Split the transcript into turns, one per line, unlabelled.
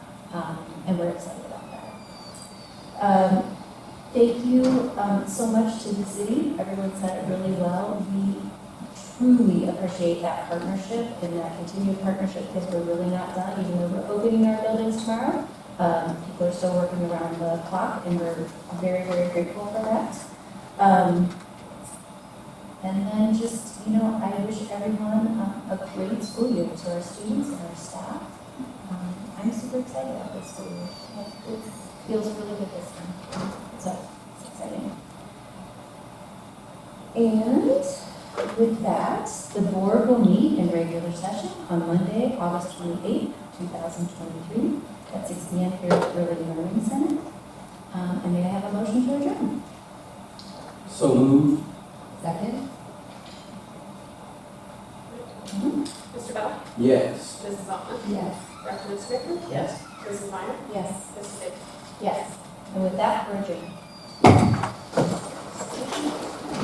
um, and we're excited about that. Um, Thank you um, so much to the city, everyone said it really well. We truly appreciate that partnership and that continued partnership because we're really not done, even though we're opening our buildings tomorrow. Um, People are still working around the clock and we're very, very grateful for that. Um, and then just, you know, I wish everyone um, a great school year to our students and our staff. Um, I'm super excited about this school year. Like, It feels really good this time. So, it's exciting. And with that, the board will meet in regular session on Monday, August 28th, 2023, at 6 PM here at the Early Learning Center. Um, And may I have a motion to adjourn?
So moved.
Second.
Mr. Bell?
Yes.
Mrs. Altman?
Mm-hmm. Yes.
Dr. Smith?
Yes.
Mrs. Meyer?
Yes.
Mrs. Bates?
Yes. And with that, we're adjourned.